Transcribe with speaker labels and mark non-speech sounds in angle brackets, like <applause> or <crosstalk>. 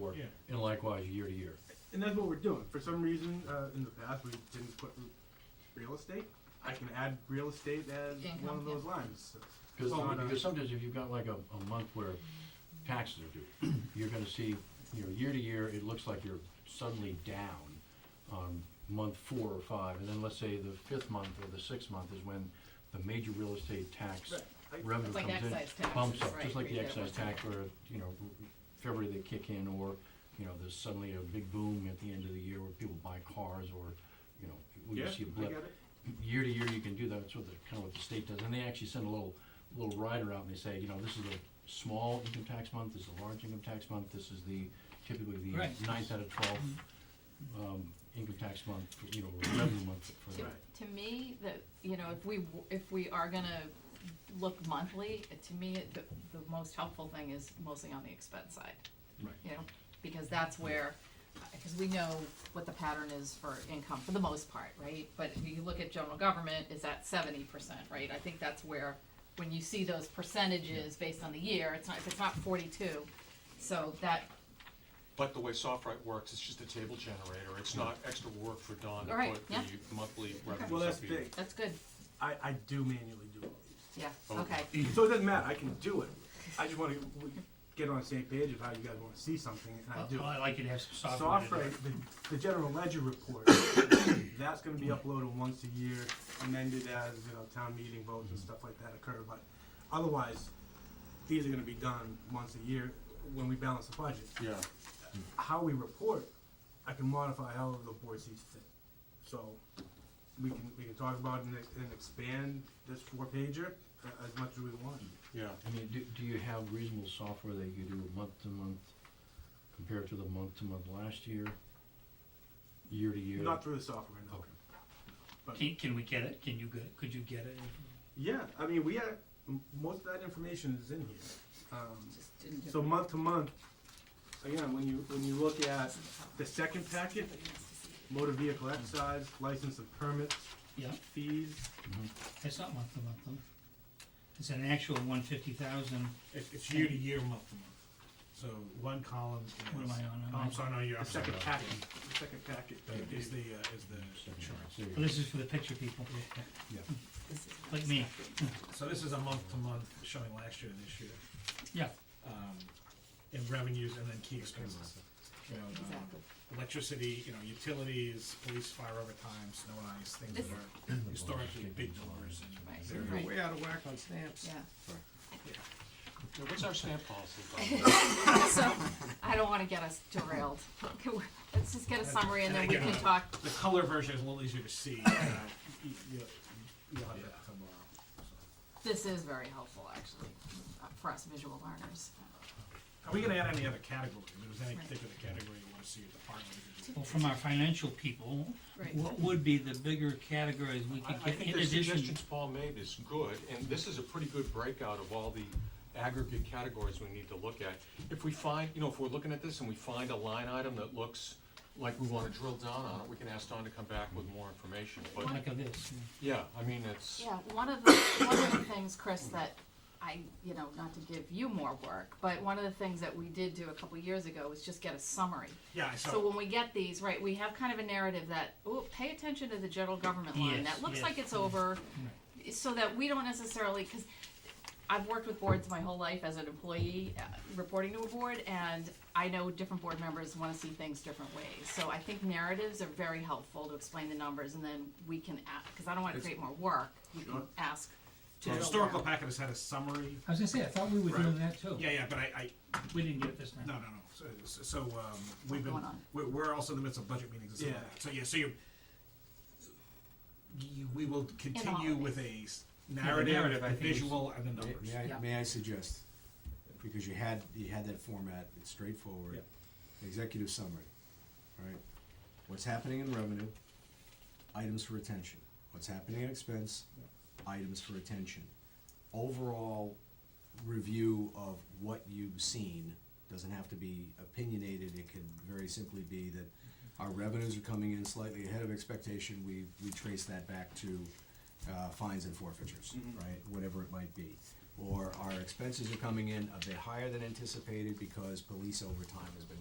Speaker 1: forward,
Speaker 2: Yeah.
Speaker 1: and likewise year to year.
Speaker 2: And that's what we're doing. For some reason, uh, in the past, we didn't put r- real estate. I can add real estate as
Speaker 3: Income,
Speaker 2: one of
Speaker 3: yeah.
Speaker 2: those lines.
Speaker 1: Because,
Speaker 2: Well, uh,
Speaker 1: because sometimes if you've got like a, a month where taxes are due, <clears throat> you're gonna see, you know, year to year, it looks like you're suddenly down on month four or five, and then let's say the fifth month or the sixth month is when the major real estate tax
Speaker 2: Right. I-
Speaker 1: revenue
Speaker 3: It's like
Speaker 1: comes in.
Speaker 3: excise taxes,
Speaker 1: Bumps up,
Speaker 3: right,
Speaker 1: just like
Speaker 3: we
Speaker 1: the
Speaker 3: did it
Speaker 1: excise
Speaker 3: one time.
Speaker 1: tax where, you know, February they kick in, or, you know, there's suddenly a big boom at the end of the year where people buy cars, or, you know, we
Speaker 2: Yeah,
Speaker 1: see a
Speaker 2: I
Speaker 1: blip
Speaker 2: get it.
Speaker 1: year to year, you can do that, that's what the, kind of what the state does, and they actually send a little, little rider out and they say, you know, this is a small income tax month, this is a large income tax month, this is the, typically the
Speaker 4: Right. Mm-hmm.
Speaker 1: ninth out of twelfth, um, income tax month, you know, or revenue month for
Speaker 3: To,
Speaker 1: that.
Speaker 3: to me, that, you know, if we, w- if we are gonna look monthly, uh, to me, the, the most helpful thing is mostly on the expense side.
Speaker 1: Right.
Speaker 3: You know, because that's where, because we know what the pattern is for income, for the most part, right? But if you look at general government, it's at seventy percent, right? I think that's where, when you see those percentages based on the year, it's not, if it's not forty-two, so that,
Speaker 5: But the way SoftWrite works, it's just a table generator, it's not extra work for Don
Speaker 3: All right,
Speaker 5: to put
Speaker 3: yeah.
Speaker 5: the monthly revenues.
Speaker 2: Well, that's
Speaker 5: up either.
Speaker 2: big.
Speaker 3: that's good,
Speaker 2: I, I do manually do all these.
Speaker 3: yeah,
Speaker 4: Oh.
Speaker 5: Okay.
Speaker 3: okay.
Speaker 4: E-
Speaker 2: So it doesn't matter. I can do it. I just want to get on the same page of how you guys want to see something, and I do.
Speaker 1: Uh,
Speaker 4: Well, I like it to have some software.
Speaker 2: Soft
Speaker 4: in it.
Speaker 2: rate, the, the general ledger report, <coughs> that's gonna be uploaded once a year, amended as, you know, town meeting votes and stuff like that occur, but otherwise, these are gonna be done once a year when we balance the budget.
Speaker 5: Yeah,
Speaker 2: How we report, I can modify however the board sees fit. So, we can, we can talk about and, ex- and expand this four pager a- as much as we want.
Speaker 5: yeah,
Speaker 1: I mean, do, do you have reasonable software that you do month to month, compared to the month to month last year, year to year?
Speaker 2: Not through the software, no.
Speaker 1: Okay.
Speaker 4: Can, can we get it? Can you get, could you get it?
Speaker 2: Yeah, I mean, we had, m- most of that information is in here. Um,
Speaker 6: Just didn't do
Speaker 2: So
Speaker 6: it.
Speaker 2: month to month, again, when you, when you look at the second packet, motor vehicle excise, license and permits,
Speaker 4: Yeah,
Speaker 2: fees,
Speaker 4: it's not month to month though. It's an actual one fifty thousand.
Speaker 7: It's, it's year to year, month to month. So one column is.
Speaker 4: What am I on? Am
Speaker 7: Oh,
Speaker 4: I-
Speaker 7: I'm sorry, no, you're
Speaker 2: the
Speaker 7: upside
Speaker 2: second
Speaker 7: down.
Speaker 2: packet, the second packet.
Speaker 7: That Is the, uh, is the
Speaker 1: Second
Speaker 7: insurance.
Speaker 1: half, there you
Speaker 4: Well, this is for the picture people,
Speaker 1: Yeah.
Speaker 6: This is-
Speaker 4: like me.
Speaker 7: So this is a month to month showing last year and this year,
Speaker 4: Yeah,
Speaker 7: um, in revenues and then key expenses. You know, um,
Speaker 3: Exactly.
Speaker 7: Electricity, you know, utilities, police, fire overtime, snow and ice, things that
Speaker 3: This-
Speaker 5: <clears throat>
Speaker 7: are historically big numbers
Speaker 3: Right.
Speaker 7: and very
Speaker 3: Right.
Speaker 6: Way out of whack on stamps.
Speaker 3: Yeah. <laughs>
Speaker 5: Yeah, what's our stamp policy, Don?
Speaker 3: So, I don't wanna get us derailed. Can we- Let's just get a summary and then we can talk.
Speaker 7: The color version is a little easier to see, uh, you, you, you'll have that tomorrow, so.
Speaker 3: This is very helpful, actually, uh, for us visual learners.
Speaker 7: Are we gonna add any other category? If there's any
Speaker 3: Right.
Speaker 7: particular category you wanna see at the park.
Speaker 4: well, from our financial people,
Speaker 3: Right.
Speaker 4: what would be the bigger categories we
Speaker 5: I,
Speaker 4: could
Speaker 5: I
Speaker 4: get
Speaker 5: think
Speaker 4: in
Speaker 5: the
Speaker 4: addition?
Speaker 5: suggestions Paul made is good, and this is a pretty good breakout of all the aggregate categories we need to look at. If we find, you know, if we're looking at this and we find a line item that looks like we wanna drill down on it, we can ask Don to come back with more information, but,
Speaker 4: Like of this, yeah.
Speaker 5: yeah, I mean, it's,
Speaker 3: Yeah, one of the, one of the things, Chris, that I, you know, not to give you more work, but one of the things that we did do a couple years ago was just get a summary.
Speaker 7: Yeah, I
Speaker 3: So
Speaker 7: saw,
Speaker 3: when we get these, right, we have kind of a narrative that, oh, pay attention to the general government line,
Speaker 4: Yes,
Speaker 3: that looks
Speaker 4: yes,
Speaker 3: like it's over, so that we don't necessarily, cause I've worked with boards my whole life as an employee, uh, reporting to a board, and I know different board members wanna see things different ways, so I think narratives are very helpful to explain the numbers, and then we can ask, cause I don't wanna
Speaker 7: It's-
Speaker 3: create more work, we can
Speaker 2: Sure.
Speaker 3: ask.
Speaker 7: the historical packet has had a summary,
Speaker 4: I was gonna say, I thought we were doing that too.
Speaker 7: yeah, yeah, but I, I,
Speaker 4: We didn't get it this time.
Speaker 7: no, no, no, so, so, um, we've been,
Speaker 3: going on?
Speaker 7: we're, we're also in the midst of budget meetings and stuff like
Speaker 2: Yeah.
Speaker 7: that, so, yeah, so you're. You, we will continue with a s- narrative,
Speaker 4: narrative, I
Speaker 7: the
Speaker 4: think is-
Speaker 7: visual, and the
Speaker 8: May-
Speaker 7: numbers.
Speaker 8: May
Speaker 3: Yeah.
Speaker 8: I, may I suggest, because you had, you had that format, it's straightforward, executive summary, right? What's happening in revenue, items for attention. What's happening in expense, items for attention. Overall review of what you've seen doesn't have to be opinionated, it can very simply be that our revenues are coming in slightly ahead of expectation, we, we trace that back to, uh, fines and forfeitures, right, whatever it might be. Or our expenses are coming in a bit higher than anticipated because police overtime has been